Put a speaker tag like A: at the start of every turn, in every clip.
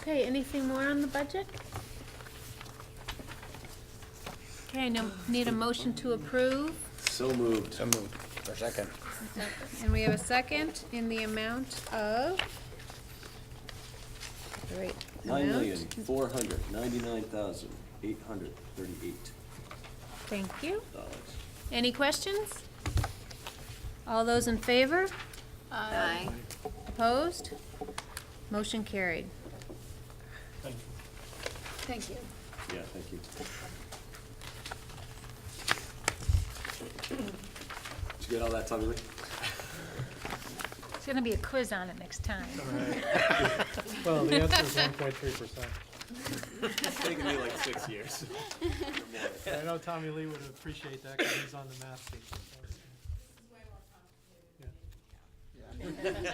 A: Okay, anything more on the budget? Okay, now need a motion to approve,
B: So moved.
C: So moved. For a second.
A: and we have a second in the amount of? the right
B: Nine
A: amount?
B: million, four hundred, ninety-nine thousand, eight hundred, thirty-eight
A: Thank you.
B: dollars.
A: Any questions? All those in favor?
D: Aye.
A: Opposed? Motion carried.
D: Thank you.
B: Yeah, thank you. Did you get all that, Tommy Lee?
A: It's gonna be a quiz on it next time.
E: Well, the answer is one point three percent.
B: It's taken me like six years.
E: I know Tommy Lee would appreciate that because he's on the math team. Yeah.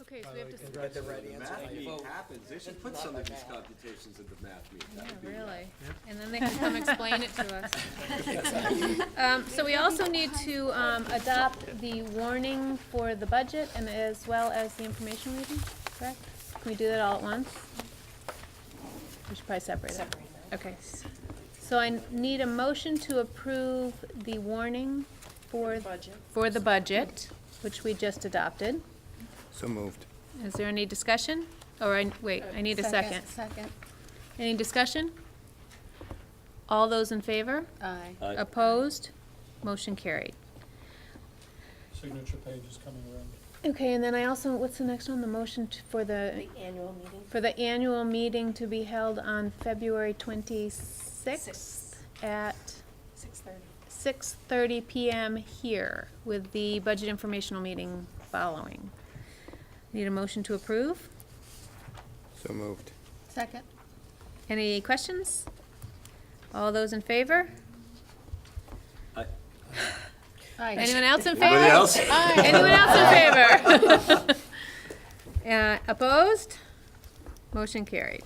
A: Okay, so
E: By
A: we
E: the
A: have
E: way,
A: to, s-
E: congrats on
B: The
E: the math.
B: math meeting happens, they should put some of these computations in the math meeting.
A: yeah,
B: That would be-
A: Oh, really, and then they can come explain it to us. Um, so we also need to, um, adopt the warning for the budget and as well as the information reading, correct? Can we do that all at once? We should probably separate it. Okay. So I need a motion to approve the warning for,
D: Budget.
A: for the budget, which we just adopted.
C: So moved.
A: Is there any discussion? Or, I, wait, I need a second.
D: Second.
A: Any discussion? All those in favor?
D: Aye.
B: Aye.
A: Opposed? Motion carried.
E: Signature page is coming around.
A: Okay, and then I also, what's the next one? The motion t- for the,
D: annual meeting?
A: for the annual meeting to be held on February twenty-sixth at
D: Six thirty.
A: six thirty PM here with the budget informational meeting following. Need a motion to approve?
C: So moved.
D: Second.
A: Any questions? All those in favor?
B: I-
D: Aye.
A: Anyone else in favor?
B: Anybody else?
A: Anyone else in favor? Uh, Opposed? Motion carried.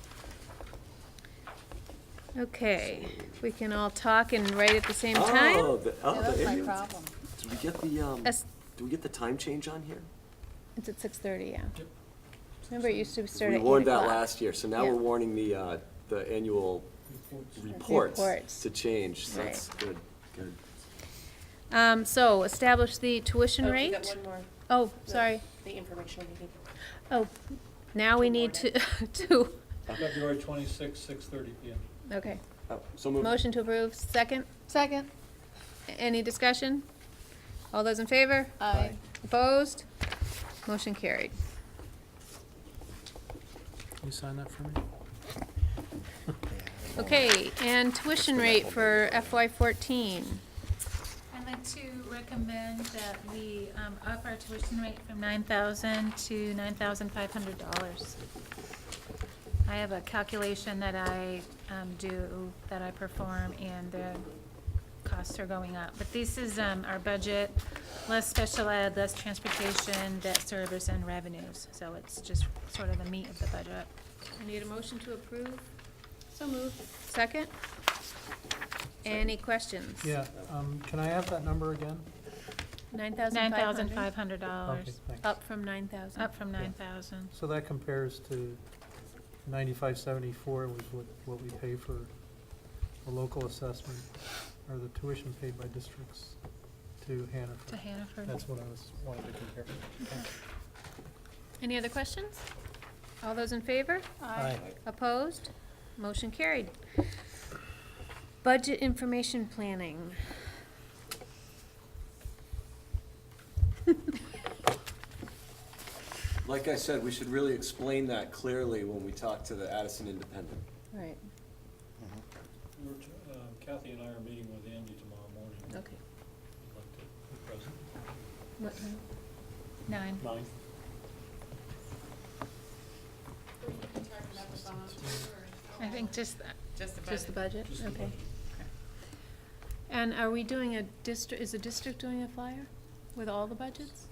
A: Okay, we can all talk and write at the same time?
B: Oh, the, oh,
D: That was
B: the
D: my
B: annual-
D: problem.
B: Did we get the, um,
A: Yes.
B: do we get the time change on here?
A: It's at six thirty, yeah. Remember, it used to start at
B: We
A: eight
B: warned that
A: o'clock.
B: last year, so now
A: Yeah.
B: we're warning the, uh, the annual reports
A: Reports.
B: to change, so
A: Right.
B: that's good, good.
A: Um, so, establish the tuition
F: Oh, we
A: rate?
F: got one more,
A: Oh, sorry.
F: the informational meeting.
A: Oh, now we need to, to,
E: February twenty-sixth, six thirty P M.
A: okay.
B: Oh, So moved.
A: Motion to approve, second?
D: Second.
A: Any discussion? All those in favor?
D: Aye.
A: Opposed? Motion carried.
E: Can you sign that for me?
A: Okay, and tuition rate for FY fourteen.
G: I'd like to recommend that we um, up our tuition rate from nine thousand to nine thousand five hundred dollars. I have a calculation that I um, do, that I perform, and the costs are going up. But this is um, our budget, less special ed, less transportation, debt service, and revenues. So it's just sort of the meat of the budget.
A: I need a motion to approve. So moved. Second? Any questions?
E: Yeah, um, can I have that number again?
A: Nine thousand
G: Nine
A: five
G: thousand
A: hundred?
G: five hundred
E: Okay,
G: dollars,
E: thanks.
A: Up from nine thousand.
G: up from nine thousand.
E: So that compares to ninety-five seventy-four was what, what we pay for a local assessment or the tuition paid by districts to
G: To
E: Hannaford.
G: Hannaford.
E: That's what I was, wanted to compare.
A: Any other questions? All those in favor?
E: Aye.
A: Opposed? Motion carried. Budget information planning.
B: Like I said, we should really explain that clearly when we talk to the Addison Independent.
A: Right,
H: We're t- um, Kathy and I are meeting with Andy tomorrow morning. I'd
A: okay.
H: like to be present.
G: What time? Nine.
H: Nine.
G: I think just, that.
A: Just the budget,
H: Just the
A: okay.
H: budget.
A: And are we doing a district, is the district doing a flyer with all the budgets?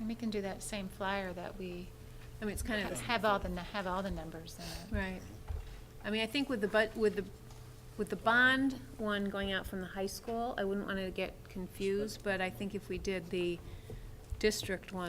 G: and we can do that same flyer that we
A: I mean, it's kind of, the-
G: have all the, have all the numbers in it.
A: right. I mean, I think with the bud, with the, with the bond one going out from the high school, I wouldn't want to get confused, but I think if we did the district one,